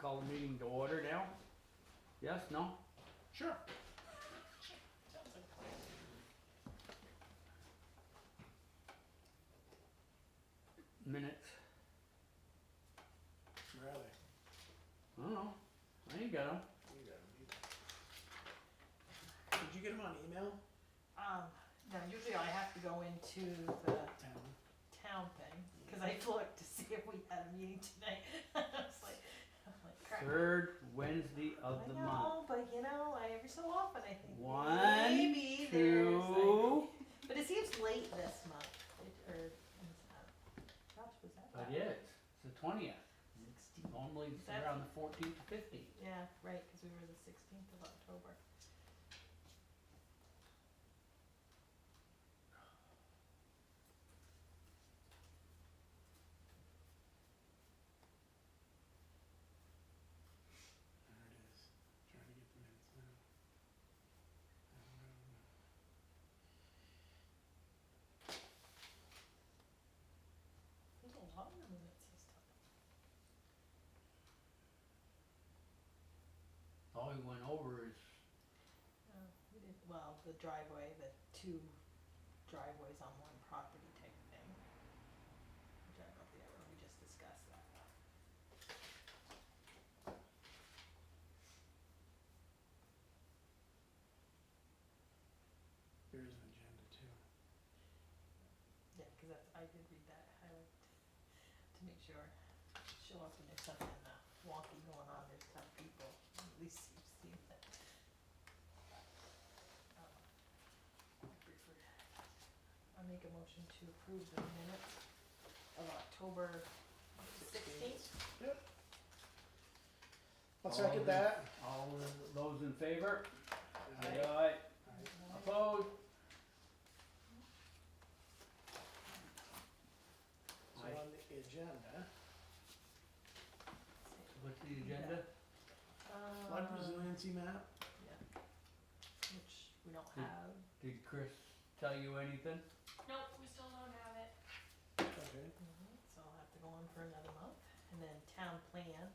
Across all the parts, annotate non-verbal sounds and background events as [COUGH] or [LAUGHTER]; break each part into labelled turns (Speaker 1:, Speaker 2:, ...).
Speaker 1: call the meeting to order now? Yes, no? Sure. Minutes,
Speaker 2: Where are they?
Speaker 1: I don't know, I ain't got 'em.
Speaker 2: You got 'em, you got 'em. Did you get them on email?
Speaker 3: Um, no, usually I have to go into the
Speaker 2: Town.
Speaker 3: town thing, cause I looked to see if we had a meeting tonight. [LAUGHS] I was like, I'm like, crap.
Speaker 1: Third Wednesday of the
Speaker 3: I
Speaker 1: month.
Speaker 3: know, but you know, I, every so often I think.
Speaker 1: One,
Speaker 3: maybe there's like-
Speaker 1: two.
Speaker 3: But it seems late this month, it, or, uh, gosh, was that
Speaker 1: It
Speaker 3: bad?
Speaker 1: is, it's the twentieth,
Speaker 3: Sixteen,
Speaker 1: normally it's around the fourteenth, fifteenth.
Speaker 3: yeah, right, cause we were the sixteenth of October.
Speaker 2: There it is. Trying to get the minutes now. I don't know.
Speaker 3: There's a lot of minutes this time.
Speaker 1: All we went over is
Speaker 3: Oh, we did, well, the driveway, the two driveways on one property type of thing. Which I don't think I remember, we just discussed that.
Speaker 2: There is an agenda too.
Speaker 3: Yeah, cause that's, I did read that, I would, to make sure, show up and there's something, uh, wonky going on, there's tough people, at least you've seen that. Um, I prefer- I make a motion to approve the minutes of October sixteenth.
Speaker 2: I'll
Speaker 1: All
Speaker 2: second
Speaker 1: in-
Speaker 2: that.
Speaker 1: all of those in favor?
Speaker 2: Aye.
Speaker 1: Aye.
Speaker 2: Aye.
Speaker 1: Opposed?
Speaker 2: So
Speaker 1: Aye.
Speaker 2: on the agenda,
Speaker 1: What's the agenda?
Speaker 3: Uh,
Speaker 2: flood resiliency map,
Speaker 3: Which we don't
Speaker 1: Hmm.
Speaker 3: have.
Speaker 1: Did Chris tell you anything?
Speaker 4: Nope, we still don't have it.
Speaker 2: okay,
Speaker 3: Mm-hmm. So I'll have to go on for another month. And then town plan.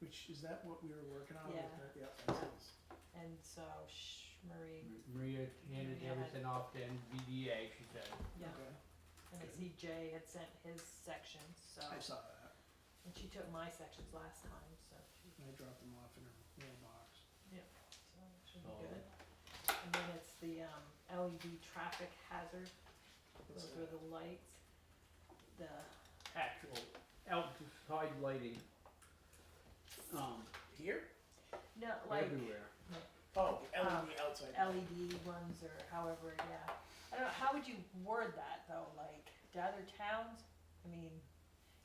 Speaker 2: which is that what we were working on? with
Speaker 3: Yeah.
Speaker 2: that? Yeah, that is.
Speaker 3: And so shh, Marie,
Speaker 1: Maria handed
Speaker 3: Yeah.
Speaker 1: everything off to NVDA, she said.
Speaker 3: yeah.
Speaker 2: Mm-hmm. Okay,
Speaker 3: And I see Jay had sent his sections, so.
Speaker 2: I saw that.
Speaker 3: And she took my sections last time, so she,
Speaker 2: I dropped them off in her mailbox.
Speaker 3: so it should be
Speaker 1: Oh.
Speaker 3: good. And then it's the um LED traffic hazard.
Speaker 2: What's
Speaker 3: Those
Speaker 2: that?
Speaker 3: are the lights. The,
Speaker 1: Actual outside lighting. Um,
Speaker 2: Here?
Speaker 3: no, like
Speaker 1: everywhere.
Speaker 2: Oh, the
Speaker 3: Um,
Speaker 2: LED outside.
Speaker 3: LED ones or however, yeah. I don't know, how would you word that though, like, to other towns? I mean,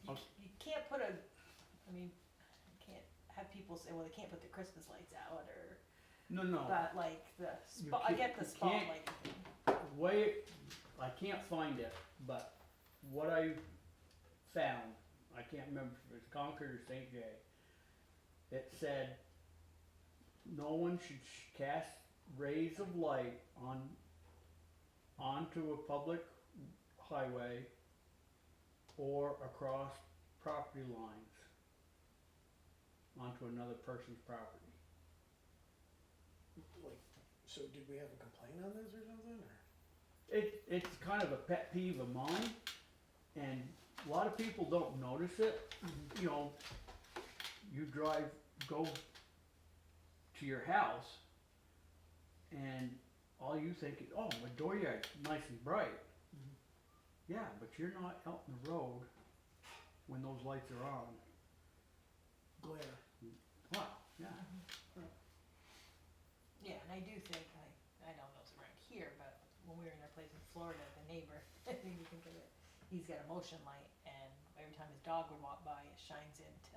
Speaker 3: you,
Speaker 1: Most-
Speaker 3: you can't put a, I mean, you can't have people say, well, they can't put the Christmas lights out or,
Speaker 1: No, no,
Speaker 3: but like the
Speaker 1: Oh. You
Speaker 3: spot, I
Speaker 1: can't-
Speaker 3: get the
Speaker 1: you can't-
Speaker 3: spotlight thing.
Speaker 1: way, I can't find it, but what I found, I can't remember if it was Concord or St. J. It said, no one should sh- cast rays of light on, onto a public highway or across property lines onto another person's property.
Speaker 2: Like, so did we have a complaint on this or something, or?
Speaker 1: it, it's kind of a pet peeve of mine, and a lot of people don't notice it. You know, you drive, go to your house, and all you think is, oh, my dooryard's nice and bright.
Speaker 2: Mhm.
Speaker 1: Yeah, but you're not out in the road when those lights are on.
Speaker 2: Glare.
Speaker 1: Wow, yeah.
Speaker 3: Yeah, and I do think, I, I don't know if it's around here, but when we were in our place in Florida, the neighbor, [LAUGHS] I think you think of it, he's got a motion light and every time his dog would walk by, it shines into